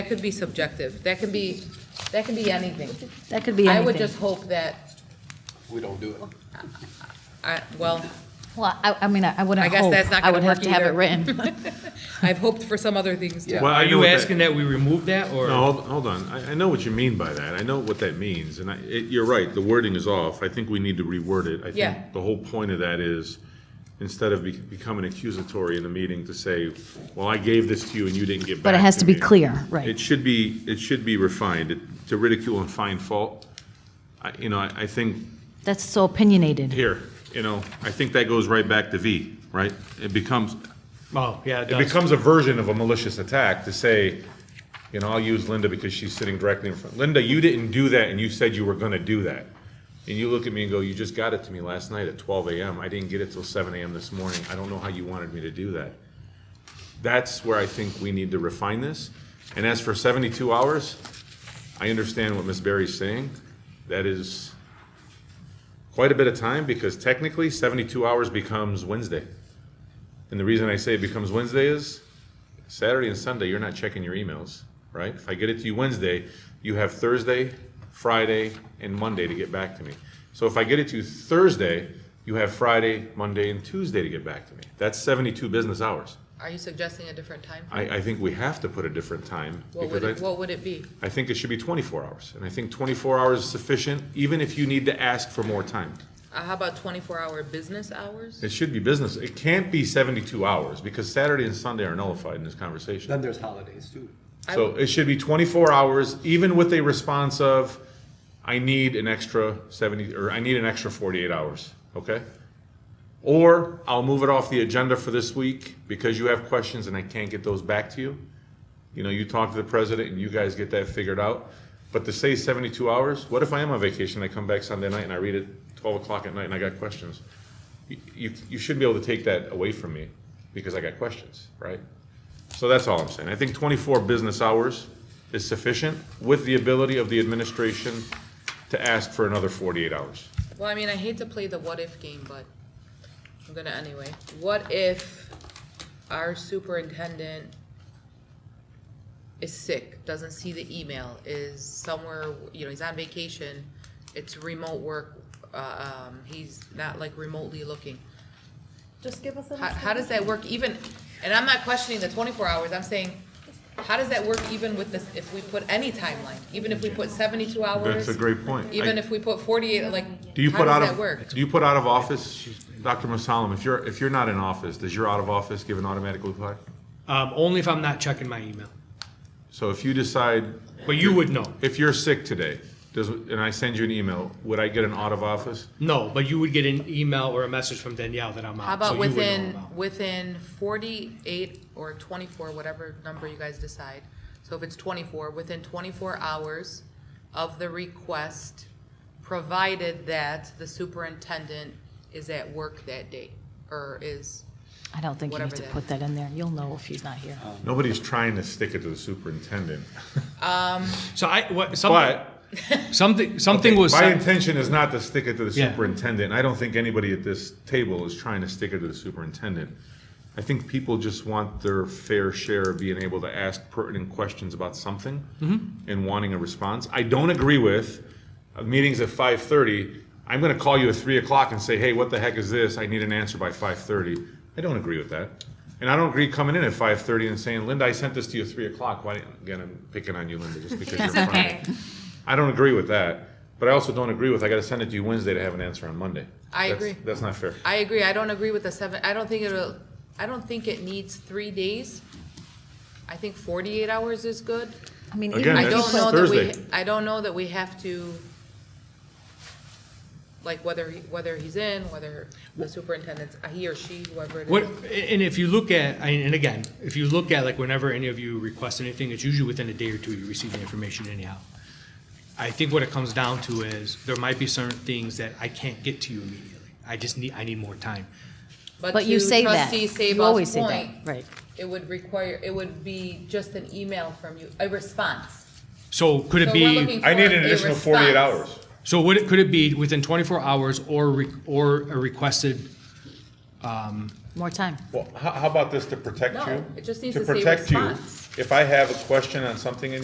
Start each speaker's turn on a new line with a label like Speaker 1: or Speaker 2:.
Speaker 1: could be subjective. That can be, that can be anything.
Speaker 2: That could be
Speaker 1: I
Speaker 2: anything.
Speaker 1: would just hope that,
Speaker 3: We don't do it.
Speaker 1: I, well,
Speaker 2: Well, I, I mean, I I wouldn't
Speaker 1: I guess
Speaker 2: hope.
Speaker 1: that's not
Speaker 2: I would
Speaker 1: gonna
Speaker 2: have
Speaker 1: work
Speaker 2: to have it
Speaker 1: either.
Speaker 2: written.
Speaker 1: I've hoped for some other things too.
Speaker 3: Yeah.
Speaker 4: Well, I
Speaker 5: Are
Speaker 4: know
Speaker 5: you
Speaker 4: what that-
Speaker 5: asking that we remove that, or?
Speaker 4: No, hold, hold on. I, I know what you mean by that. I know what that means, and I, it, you're right, the wording is off. I think we need to reword it. I
Speaker 1: Yeah.
Speaker 4: think the whole point of that is, instead of be- becoming accusatory in the meeting to say, well, I gave this to you and you didn't get back
Speaker 2: But it has to be
Speaker 4: me."
Speaker 2: clear, right.
Speaker 4: It should be, it should be refined. It- To ridicule and find fault, I, you know, I, I think,
Speaker 2: That's so opinionated.
Speaker 4: here, you know, I think that goes right back to V, right? It becomes,
Speaker 5: Oh, yeah, it
Speaker 4: it
Speaker 5: does.
Speaker 4: becomes a version of a malicious attack to say, you know, I'll use Linda because she's sitting directly in front. Linda, you didn't do that and you said you were gonna do that. And you look at me and go, you just got it to me last night at twelve AM. I didn't get it till seven AM this morning. I don't know how you wanted me to do that. That's where I think we need to refine this. And as for seventy-two hours, I understand what Ms. Berry's saying. That is quite a bit of time because technically seventy-two hours becomes Wednesday. And the reason I say it becomes Wednesday is Saturday and Sunday, you're not checking your emails, right? If I get it to you Wednesday, you have Thursday, Friday, and Monday to get back to me. So if I get it to you Thursday, you have Friday, Monday, and Tuesday to get back to me. That's 72 business hours.
Speaker 1: Are you suggesting a different time? frame?
Speaker 4: I, I think we have to put a different time.
Speaker 1: What
Speaker 4: because
Speaker 1: would it,
Speaker 4: I-
Speaker 1: what would it be?
Speaker 4: I think it should be 24 hours. And I think 24 hours is sufficient, even if you need to ask for more time.
Speaker 1: Uh, how about twenty-four hour business hours?
Speaker 4: It should be business. It can't be 72 hours because Saturday and Sunday are nullified in this conversation.
Speaker 3: Then there's holidays too.
Speaker 4: So it should be twenty-four hours, even with a response of, I need an extra seventy, or I need an extra forty-eight hours, okay? Or I'll move it off the agenda for this week because you have questions and I can't get those back to you. You know, you talk to the president and you guys get that figured out. But to say seventy-two hours, what if I am on vacation, I come back Sunday night and I read it twelve o'clock at night and I got questions? You, you, you shouldn't be able to take that away from me because I got questions, right? So that's all I'm saying. I think 24 business hours is sufficient with the ability of the administration to ask for another 48 hours.
Speaker 1: Well, I mean, I hate to play the what if game, but I'm gonna anyway. What if our superintendent is sick, doesn't see the email, is somewhere, you know, he's on vacation, it's remote work, uh, um, he's not like remotely looking.
Speaker 6: Just give us a.
Speaker 1: How, how does that work even, and I'm not questioning the twenty-four hours, I'm saying, how does that work even with this, if we put any timeline? Even if we put seventy-two hours?
Speaker 4: That's a great point.
Speaker 1: Even if we put forty-eight, like,
Speaker 4: Do you
Speaker 1: how
Speaker 4: put out
Speaker 1: does that work?
Speaker 4: of, do you put out of office, Dr. Musalam, if you're, if you're not in office, does your out of office give an automatic reply?
Speaker 5: Um, only if I'm not checking my email.
Speaker 4: So if you decide,
Speaker 5: But you would know.
Speaker 4: if you're sick today, does, and I send you an email, would I get an out of office?
Speaker 5: No, but you would get an email or a message from Danielle that I'm out.
Speaker 1: How
Speaker 5: so
Speaker 1: about
Speaker 5: you would know
Speaker 1: within,
Speaker 5: about it.
Speaker 1: within forty-eight or twenty-four, whatever number you guys decide? So if it's twenty-four, within twenty-four hours of the request, provided that the superintendent is at work that day, or is,
Speaker 2: I don't think you need
Speaker 1: Whatever
Speaker 2: to
Speaker 1: that
Speaker 2: put that in there. You'll know if he's not here.
Speaker 4: Nobody's trying to stick it to the superintendent,
Speaker 5: So I, what, something,
Speaker 4: but
Speaker 5: something, something was
Speaker 4: My
Speaker 5: said.
Speaker 4: intention is not to stick it to the
Speaker 5: Yeah.
Speaker 4: superintendent. I don't think anybody at this table is trying to stick it to the superintendent. I think people just want their fair share of being able to ask pertinent questions about something
Speaker 5: Mm-hmm.
Speaker 4: and wanting a response. I don't agree with uh, meetings at five thirty. I'm going to call you at three o'clock and say, "Hey, what the heck is this? I need an answer by five thirty. I don't agree with that, and I don't agree coming in at five thirty and saying, "Linda, I sent this to you at three o'clock." Why? didn't- Again, I'm picking on you, Linda, just because you're in front of me. I don't agree with that, but I also don't agree with, I gotta send it to you Wednesday to have an answer on Monday.
Speaker 1: I
Speaker 4: That's-
Speaker 1: agree.
Speaker 4: That's not fair.
Speaker 1: I agree, I don't agree with the seven, I don't think it'll, I don't think it needs three days. I think forty-eight hours is good.
Speaker 2: I mean, even
Speaker 4: Again,
Speaker 1: I
Speaker 2: if you
Speaker 4: that's
Speaker 1: don't know that
Speaker 2: put,
Speaker 1: we,
Speaker 4: Thursday.
Speaker 1: I don't know that we have to, like, whether, he- whether he's in, whether the superintendent's, uh, he or she, whoever it
Speaker 5: What,
Speaker 1: is.
Speaker 5: and if you look at, and and again, if you look at like whenever any of you request anything, it's usually within a day or two you receive the information anyhow. I think what it comes down to is there might be certain things that I can't get to you immediately. I just need, I need more time.
Speaker 2: but you
Speaker 1: to
Speaker 2: say that.
Speaker 1: trustee
Speaker 2: You
Speaker 1: Sabah's
Speaker 2: always say that,
Speaker 1: point,
Speaker 2: right.
Speaker 1: It would require, it would be just an email from you, a response.
Speaker 5: So could it
Speaker 1: So
Speaker 5: be?
Speaker 1: we're looking
Speaker 4: I need
Speaker 1: for
Speaker 4: an
Speaker 1: a
Speaker 4: additional forty-eight
Speaker 1: response.
Speaker 4: hours.
Speaker 5: So would it, could it be within 24 hours or, re- or a requested,
Speaker 2: more time.
Speaker 4: Well, how, how about this to protect you?
Speaker 1: No, it just needs to say
Speaker 4: protect you,
Speaker 1: response.
Speaker 4: If I have a question on something in